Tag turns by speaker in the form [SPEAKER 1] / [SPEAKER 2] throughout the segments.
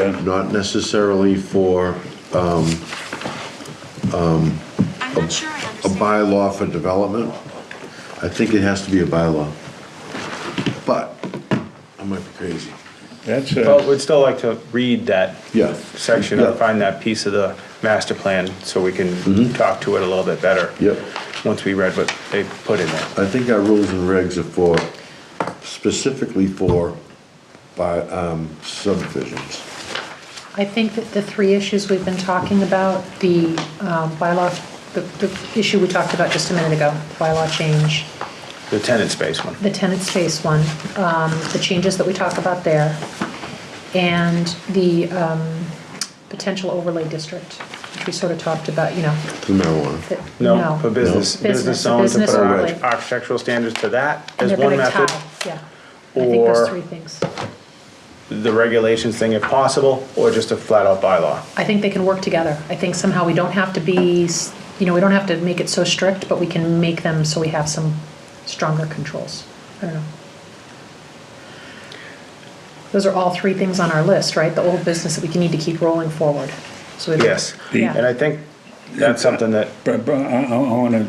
[SPEAKER 1] Yeah.
[SPEAKER 2] not necessarily for
[SPEAKER 3] I'm not sure I
[SPEAKER 2] a
[SPEAKER 3] understand.
[SPEAKER 2] bylaw for development. I think it has to be a bylaw. But, I might be crazy.
[SPEAKER 1] That's,
[SPEAKER 4] But
[SPEAKER 1] uh,
[SPEAKER 4] we'd still like to read that
[SPEAKER 2] Yeah.
[SPEAKER 4] section
[SPEAKER 2] Yeah. Mm-hmm.
[SPEAKER 4] and find that piece of the master plan so we can talk to it a little bit better.
[SPEAKER 2] Yep.
[SPEAKER 4] Once we read what they put in there.
[SPEAKER 2] I think our rules and regs are for, specifically for, by, um, subdivisions.
[SPEAKER 5] I think that the three issues we've been talking about, the um, bylaw, the, the issue we talked about just a minute ago, bylaw change,
[SPEAKER 4] The tenant space one.
[SPEAKER 5] the tenant space one, um, the changes that we talk about there, and the um, potential overlay district, which we sort of talked about, you know,
[SPEAKER 2] The marijuana.
[SPEAKER 5] that,
[SPEAKER 4] No, for business,
[SPEAKER 5] Business,
[SPEAKER 4] business zones to
[SPEAKER 5] business
[SPEAKER 4] put our
[SPEAKER 5] overlay.
[SPEAKER 4] architectural standards to that
[SPEAKER 5] And
[SPEAKER 4] as
[SPEAKER 5] they're
[SPEAKER 4] one
[SPEAKER 5] going to
[SPEAKER 4] method.
[SPEAKER 5] tie, yeah. I think
[SPEAKER 4] or-
[SPEAKER 5] those three things.
[SPEAKER 4] The regulations thing if possible, or just a flat out bylaw.
[SPEAKER 5] I think they can work together. I think somehow we don't have to be, s- you know, we don't have to make it so strict, but we can make them so we have some stronger controls. I don't know. Those are all three things on our list, right? The old business that we can need to keep rolling forward. So we don't-
[SPEAKER 4] Yes.
[SPEAKER 5] Yeah.
[SPEAKER 4] And I think that's something that,
[SPEAKER 1] but, but I, I wanna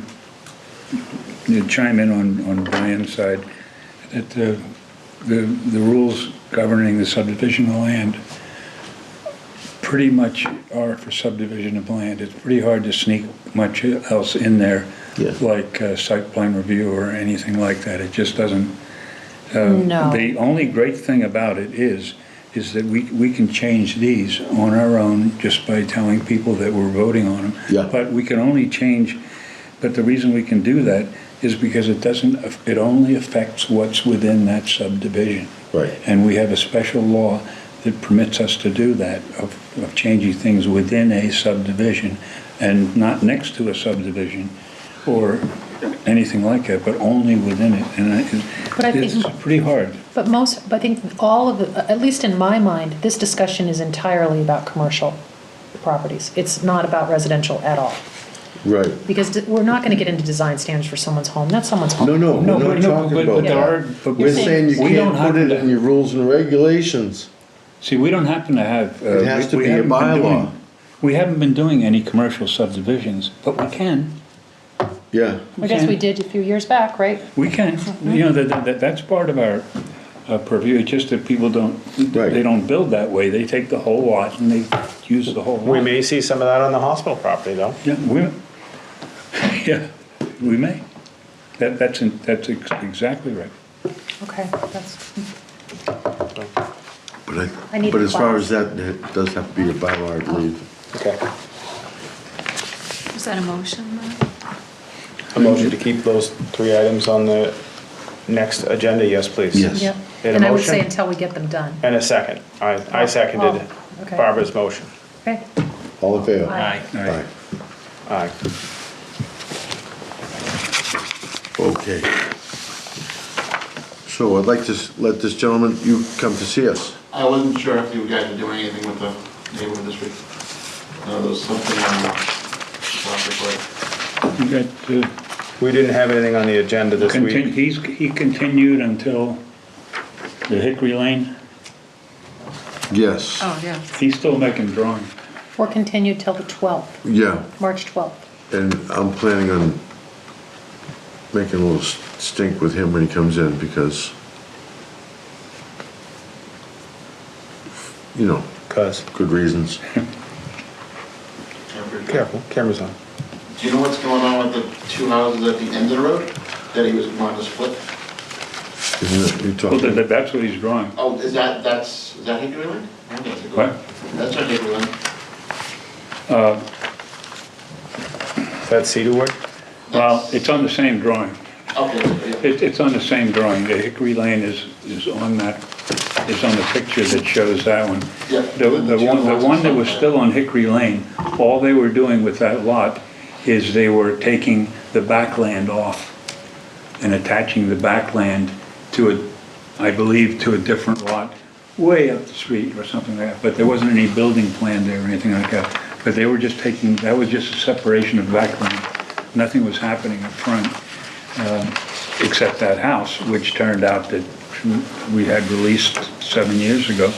[SPEAKER 1] chime in on, on Brian's side, that the, the, the rules governing the subdivision of land pretty much are for subdivision of land. It's pretty hard to sneak much else in there,
[SPEAKER 2] Yeah.
[SPEAKER 1] like uh, site plan review or anything like that. It just doesn't.
[SPEAKER 5] No,
[SPEAKER 1] The only great thing about it is, is that we, we can change these on our own just by telling people that we're voting on them.
[SPEAKER 2] Yeah.
[SPEAKER 1] But we can only change, but the reason we can do that is because it doesn't, aff- it only affects what's within that subdivision.
[SPEAKER 2] Right.
[SPEAKER 1] And we have a special law that permits us to do that, of, of changing things within a subdivision and not next to a subdivision or anything like that, but only within it. And I,
[SPEAKER 5] But I
[SPEAKER 1] it's
[SPEAKER 5] think-
[SPEAKER 1] pretty hard.
[SPEAKER 5] but most, but I think all of the, at least in my mind, this discussion is entirely about commercial properties. It's not about residential at all.
[SPEAKER 2] Right.
[SPEAKER 5] Because d- we're not going to get into design standards for someone's home. That's someone's home.
[SPEAKER 2] No, no,
[SPEAKER 1] No,
[SPEAKER 2] we're
[SPEAKER 1] but-
[SPEAKER 2] not
[SPEAKER 1] no,
[SPEAKER 2] talking
[SPEAKER 1] but-
[SPEAKER 2] about
[SPEAKER 1] but there are-
[SPEAKER 2] that.
[SPEAKER 1] but
[SPEAKER 2] We're
[SPEAKER 1] we're
[SPEAKER 2] saying you
[SPEAKER 1] saying- We
[SPEAKER 2] can't
[SPEAKER 1] don't
[SPEAKER 2] put
[SPEAKER 1] have
[SPEAKER 2] it
[SPEAKER 1] to-
[SPEAKER 2] in your rules and regulations.
[SPEAKER 1] See, we don't happen to have. uh,
[SPEAKER 2] It has to
[SPEAKER 1] we- we
[SPEAKER 2] be a
[SPEAKER 1] haven't been
[SPEAKER 2] bylaw.
[SPEAKER 1] doing- We haven't been doing any commercial subdivisions, but we can.
[SPEAKER 2] Yeah,
[SPEAKER 5] I guess we did a few years back, right?
[SPEAKER 1] We can, you know, that, that, that's part of our uh, purview, it's just that people don't,
[SPEAKER 2] Right.
[SPEAKER 1] they don't build that way, they take the whole lot and they use the whole lot.
[SPEAKER 4] we may see some of that on the hospital property though.
[SPEAKER 1] Yeah, we, yeah, we may. That, that's, in- that's ex- exactly right.
[SPEAKER 5] Okay, that's,
[SPEAKER 2] but
[SPEAKER 5] I
[SPEAKER 2] I,
[SPEAKER 5] need
[SPEAKER 2] but
[SPEAKER 5] the
[SPEAKER 2] as far
[SPEAKER 5] bylaw.
[SPEAKER 2] as that, it does have to be a bylaw, I believe.
[SPEAKER 4] Okay.
[SPEAKER 3] Is that a motion though?
[SPEAKER 4] A motion to keep those three items on the next agenda, yes, please.
[SPEAKER 2] Yes.
[SPEAKER 5] yep.
[SPEAKER 4] In a
[SPEAKER 5] And I would say
[SPEAKER 4] motion?
[SPEAKER 5] until we get them done.
[SPEAKER 4] And a second. I, I seconded
[SPEAKER 5] Oh, okay.
[SPEAKER 4] Barbara's motion.
[SPEAKER 5] Okay?
[SPEAKER 2] All in favor?
[SPEAKER 5] Aye.
[SPEAKER 1] All
[SPEAKER 2] Aye.
[SPEAKER 1] right.
[SPEAKER 4] Aye.
[SPEAKER 2] Okay. So I'd like to s- let this gentleman, you come to see us.
[SPEAKER 6] I wasn't sure if you guys were doing anything with the neighborhood this week. No, there was something on the Rockford
[SPEAKER 1] You got, uh,
[SPEAKER 4] We didn't have anything on the agenda this
[SPEAKER 1] contin-
[SPEAKER 4] week.
[SPEAKER 1] he's, he continued until the Hickory Lane,
[SPEAKER 2] Yes,
[SPEAKER 3] Oh, yeah.
[SPEAKER 1] he's still making drawings.
[SPEAKER 5] Or continue till the 12th,
[SPEAKER 2] yeah,
[SPEAKER 5] March 12th.
[SPEAKER 2] and I'm planning on making a little s- stink with him when he comes in because, you know,
[SPEAKER 4] Cause,
[SPEAKER 2] good reasons.
[SPEAKER 6] Lake. Yeah,
[SPEAKER 4] careful, camera's on.
[SPEAKER 6] pretty- Do you know what's going on with the two houses at the end of the road that he was wanting to split?
[SPEAKER 2] Isn't it, you
[SPEAKER 1] Well, that,
[SPEAKER 2] talking,
[SPEAKER 1] that- that's what he's drawing.
[SPEAKER 6] Oh, is that, that's, is that Hickory Lane? I think that's Hickory
[SPEAKER 1] What?
[SPEAKER 6] Lane. That's not Hickory Lane.
[SPEAKER 4] Is that cedarwood?
[SPEAKER 1] Well, it's on the same drawing.
[SPEAKER 6] Okay, yeah.
[SPEAKER 1] It, it's on the same drawing. The Hickory Lane is, is on that, is on the picture that shows that one.
[SPEAKER 6] Yeah.
[SPEAKER 1] The, the one, the one that was still on Hickory Lane, all they were doing with that lot is they were taking the backland off and attaching the backland to a, I believe, to a different lot way up the street or something like that, but there wasn't any building plan there or anything like that. But they were just taking, that was just a separation of backland. Nothing was happening up front um, except that house, which turned out that we had released seven years ago.